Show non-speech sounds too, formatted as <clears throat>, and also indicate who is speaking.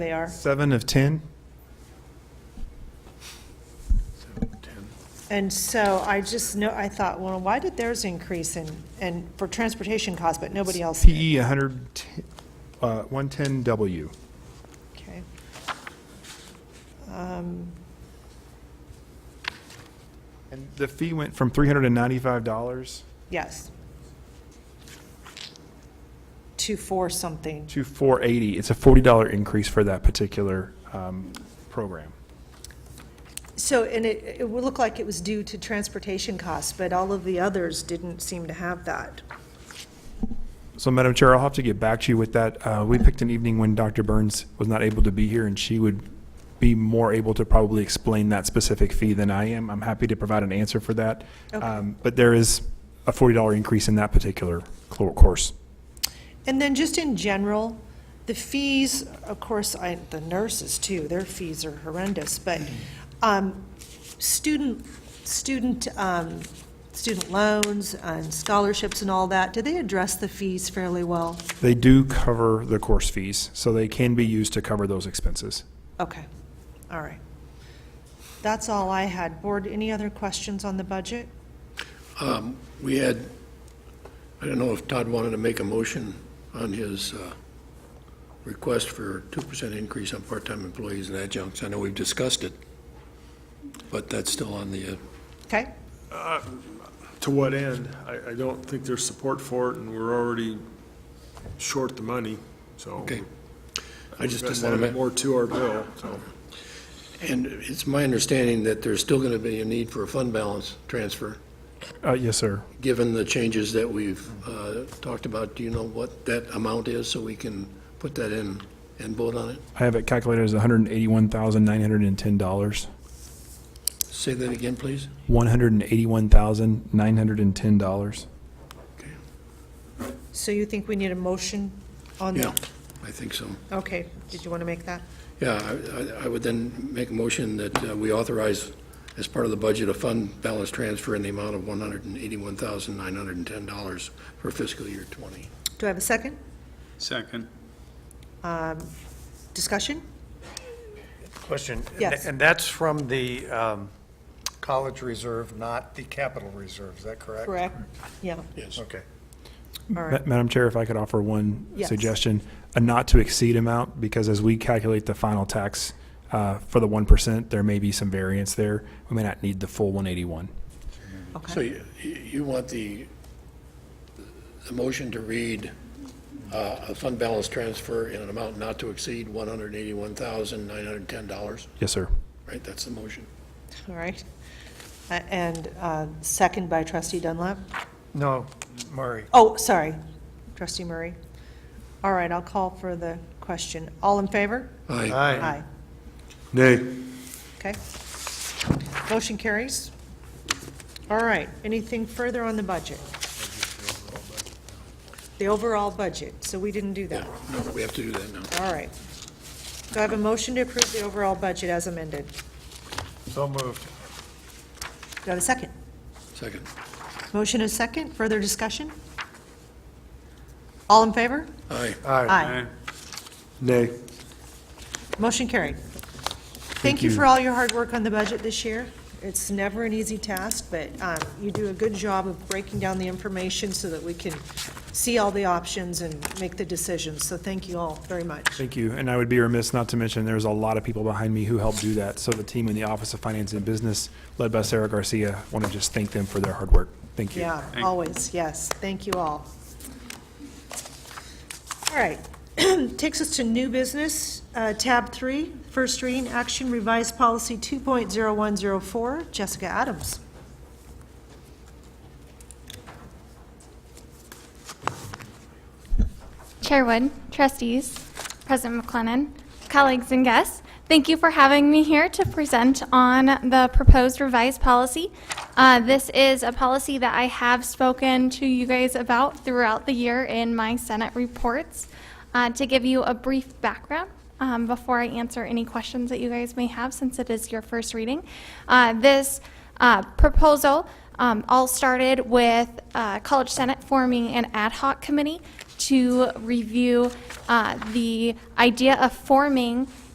Speaker 1: They are.
Speaker 2: Seven of 10?
Speaker 1: And so I just know, I thought, well, why did theirs increase in, and for transportation costs, but nobody else did?
Speaker 2: PE 110, uh, 110W.
Speaker 1: Okay. Um,
Speaker 2: And the fee went from $395
Speaker 1: Yes. Two, four, something.
Speaker 2: to 480. It's a $40 increase for that particular um, program.
Speaker 1: So, and it, it would look like it was due to transportation costs, but all of the others didn't seem to have that.
Speaker 2: So Madam Chair, I'll have to get back to you with that. Uh, We picked an evening when Dr. Burns was not able to be here, and she would be more able to probably explain that specific fee than I am. I'm happy to provide an answer for that.
Speaker 1: Okay.
Speaker 2: Um, But there is a $40 increase in that particular clo- course.
Speaker 1: And then just in general, the fees, of course, I, the nurses too, their fees are horrendous, but, um, student, student, um, student loans and scholarships and all that, do they address the fees fairly well?
Speaker 2: They do cover the course fees, so they can be used to cover those expenses.
Speaker 1: Okay, all right. That's all I had. Board, any other questions on the budget?
Speaker 3: Um, We had, I don't know if Todd wanted to make a motion on his uh, request for 2% increase on part-time employees and adjuncts. I know we've discussed it, but that's still on the, uh,
Speaker 1: Okay,
Speaker 4: To what end? I, I don't think there's support for it, and we're already short the money, so.
Speaker 3: okay. I just
Speaker 4: We've
Speaker 3: didn't want
Speaker 4: got to add
Speaker 3: to,
Speaker 4: more to our bill, so.
Speaker 3: and it's my understanding that there's still going to be a need for a fund balance transfer,
Speaker 2: Uh, Yes, sir.
Speaker 3: given the changes that we've uh, talked about. Do you know what that amount is, so we can put that in and vote on it?
Speaker 2: I have it calculated as $181,910.
Speaker 3: Say that again, please.
Speaker 2: $181,910.
Speaker 3: Okay.
Speaker 1: so you think we need a motion on
Speaker 3: Yeah,
Speaker 1: that?
Speaker 3: I think so.
Speaker 1: Okay, did you want to make that?
Speaker 3: Yeah, I- I- I would then make a motion that uh, we authorize, as part of the budget, a fund balance transfer in the amount of $181,910 for fiscal year '20.
Speaker 1: Do I have a second? Um,
Speaker 5: Second.
Speaker 1: Discussion?
Speaker 6: Question. and-
Speaker 1: Yes.
Speaker 6: And that's from the um, college reserve, not the capital reserve, is that correct?
Speaker 1: Correct. Yeah,
Speaker 3: Yes.
Speaker 6: Okay.
Speaker 1: all
Speaker 2: Ma-
Speaker 1: right.
Speaker 2: Madam Chair, if I could offer one
Speaker 1: Yes.
Speaker 2: suggestion, a not to exceed amount, because as we calculate the final tax uh, for the 1%, there may be some variance there. We may not need the full 181.
Speaker 3: So you you want the, the motion to read uh, a fund balance transfer in an amount not to exceed $181,910,
Speaker 2: Yes, sir.
Speaker 3: right? That's the motion.
Speaker 1: All right. Uh, And uh, second by trustee Dunlap.
Speaker 6: No, Murray.
Speaker 1: Oh, sorry, trustee Murray. All right, I'll call for the question. All in favor?
Speaker 3: Aye.
Speaker 6: Aye.
Speaker 1: Aye.
Speaker 4: Nay.
Speaker 1: Okay. Motion carries. All right, anything further on the budget? The overall budget, so we didn't do that.
Speaker 3: No, we have to do that now.
Speaker 1: All right. Do I have a motion to approve the overall budget as amended?
Speaker 6: So moved.
Speaker 1: Do I have a second?
Speaker 3: Second.
Speaker 1: Motion is second, further discussion? All in favor?
Speaker 3: Aye.
Speaker 6: Aye.
Speaker 4: Nay.
Speaker 1: Motion carried. Thank you for all your hard work on the budget this year. It's never an easy task, but um, you do a good job of breaking down the information so that we can see all the options and make the decisions, so thank you all very much.
Speaker 2: Thank you. And I would be remiss not to mention, there's a lot of people behind me who helped do that. So the team in the Office of Finance and Business, led by Sarah Garcia, want to just thank them for their hard work. Thank you.
Speaker 1: Yeah, always, yes, thank you all. All right, <clears throat> takes us to new business, uh, tab three, first reading, action revised policy 2.0104, Jessica Adams.
Speaker 7: Chair Wood, trustees, President McLennan, colleagues and guests, thank you for having me here to present on the proposed revised policy. Uh, This is a policy that I have spoken to you guys about throughout the year in my Senate reports. Uh, To give you a brief background, um, before I answer any questions that you guys may have, since it is your first reading, uh, this uh, proposal um, all started with uh, College Senate forming an ad hoc committee to review uh, the idea of forming